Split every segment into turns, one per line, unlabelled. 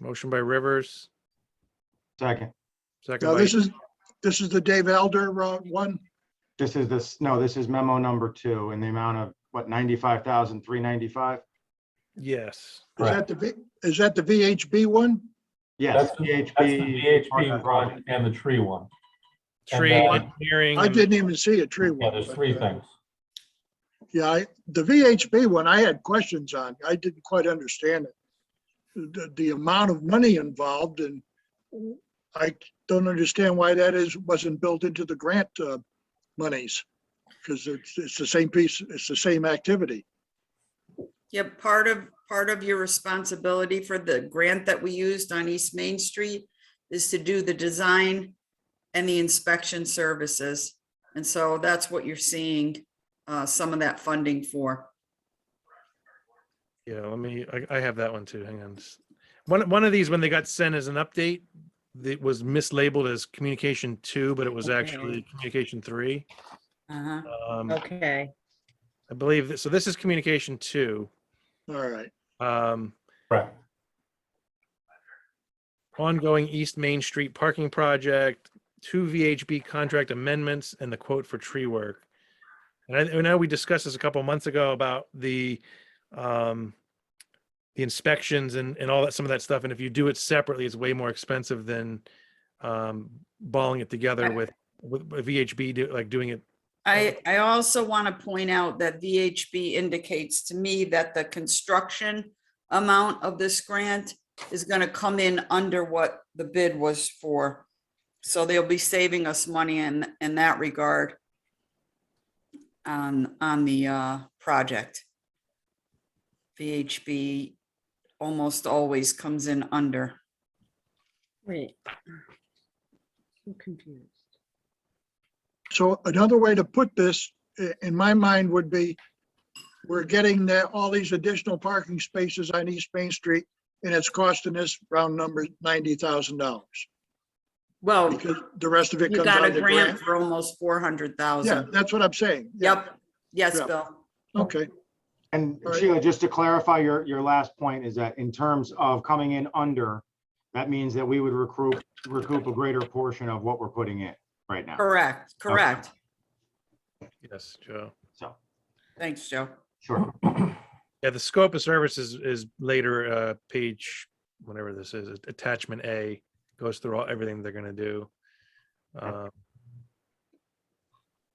Motion by Rivers,
Second,
second
Now,
by,
this is, this is the Dave Elder uh, one.
this is this, no, this is memo number two in the amount of, what, ninety-five thousand, three ninety-five?
yes.
Is that the, V- is that the VHB one?
Yes,
That's the that's the
VHB.
VHP project and the tree one. And,
Tree
uh,
engineering.
I
and-
didn't even see a tree one.
Yeah, there's three things.
Yeah, I- the VHB one, I had questions on. I didn't quite understand it. The, the amount of money involved and I don't understand why that is, wasn't built into the grant uh, monies. Because it's, it's the same piece, it's the same activity.
Yeah, part of, part of your responsibility for the grant that we used on East Main Street is to do the design and the inspection services. And so that's what you're seeing, uh, some of that funding for.
Yeah, let me, I, I have that one too. Hang on. just- One, one of these, when they got sent as an update, it was mislabeled as communication two, but it was
Okay.
actually communication three.
Uh-huh.
Um,
Okay,
I believe, that- so this is communication two.
All right.
Um,
Correct.
ongoing East Main Street parking project, two VHB contract amendments, and the quote for tree work. And I, I know we discussed this a couple months ago about the, um, the inspections and, and all that, some of that stuff. And if you do it separately, it's way more expensive than, um, balling it together with, with with VHB, do- like doing it.
I, I also want to point out that VHB indicates to me that the construction amount of this grant is going to come in under what the bid was for. So they'll be saving us money in, in that regard on, on the uh, project. VHB almost always comes in under.
wait. I'm confused.
So another way to put this, i- in my mind, would be we're getting that, all these additional parking spaces on East Main Street, and it's costing us round number ninety thousand dollars.
Well,
Because the rest of it
you
comes out
got
of
a
the
grant
grant.
for almost four hundred
Yeah,
thousand.
that's what I'm saying. Yeah,
Yep. Yes,
Yeah.
Bill.
Okay,
And
All right.
Sheila, just to clarify your, your last point is that in terms of coming in under, that means that we would recoup, recoup a greater portion of what we're putting in right now.
Correct, correct.
Yes, Joe.
So,
Thanks, Joe.
sure.
Yeah, the scope of services is later, uh, page, whatever this is, attachment A goes through all, everything they're gonna do. Uh,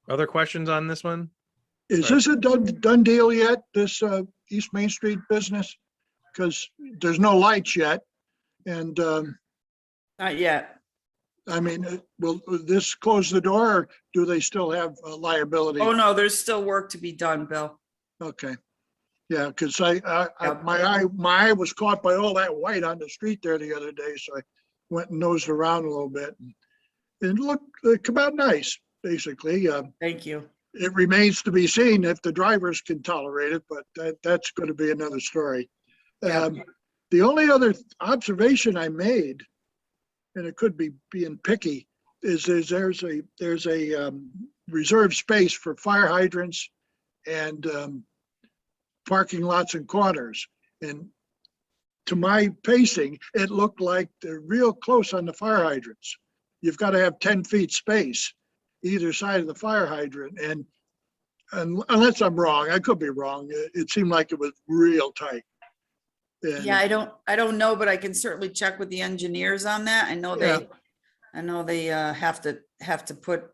Other questions on this one?
is this a done, done deal yet, this, uh, East Main Street business? Because there's no lights yet, and, um,
Not yet.
I mean, uh, will will this close the door, or do they still have uh, liability?
Oh, no, there's still work to be done, Bill.
Okay. Yeah, because I, I- I,
Yep.
my eye, my eye was caught by all that white on the street there the other day, so I went and nosed around a little bit. and It looked, it come out nice, basically. Uh,
Thank you.
It remains to be seen if the drivers can tolerate it, but that, that's going to be another story.
Yeah.
Um, The only other observation I made, and it could be being picky, is there's, there's a, there's a um, reserved space for fire hydrants and um, parking lots and corners. And to my pacing, it looked like they're real close on the fire hydrants. You've got to have 10 feet space either side of the fire hydrant and un- unless I'm wrong, I could be wrong, it it seemed like it was real tight. And-
Yeah, I don't, I don't know, but I can certainly check with the engineers on that. I know
Yeah.
they, I know they uh, have to, have to put,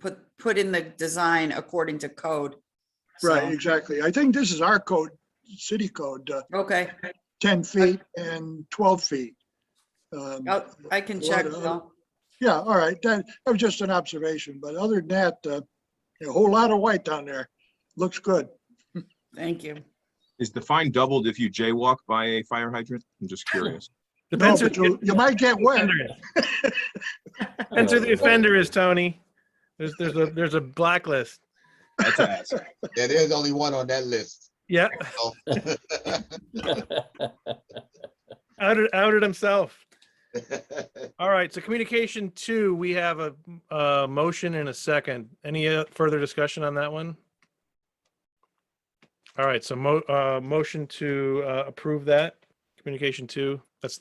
put, put in the design according to code.
Right,
So,
exactly. I think this is our code, city code, uh,
Okay,
10 feet and 12 feet. Um,
I'll- I can
What
check,
other-
Bill.
Yeah, all right, that, that was just an observation, but other than that, uh, a whole lot of white down there. Looks good.
Thank you.
Is the fine doubled if you jaywalk by a fire hydrant? I'm just curious.
No,
Depends who
but You
the
you might get wet.
offender is. Depends who the offender is, Tony. There's, there's a, there's a blacklist.
That's a ask.
Yeah, there's only one on that list.
Yeah,
so.
outed, outed himself. All right, so communication two, we have a, uh motion and a second. Any uh, further discussion on that one? All right, so mo, uh, motion to, uh, approve that, communication two, that's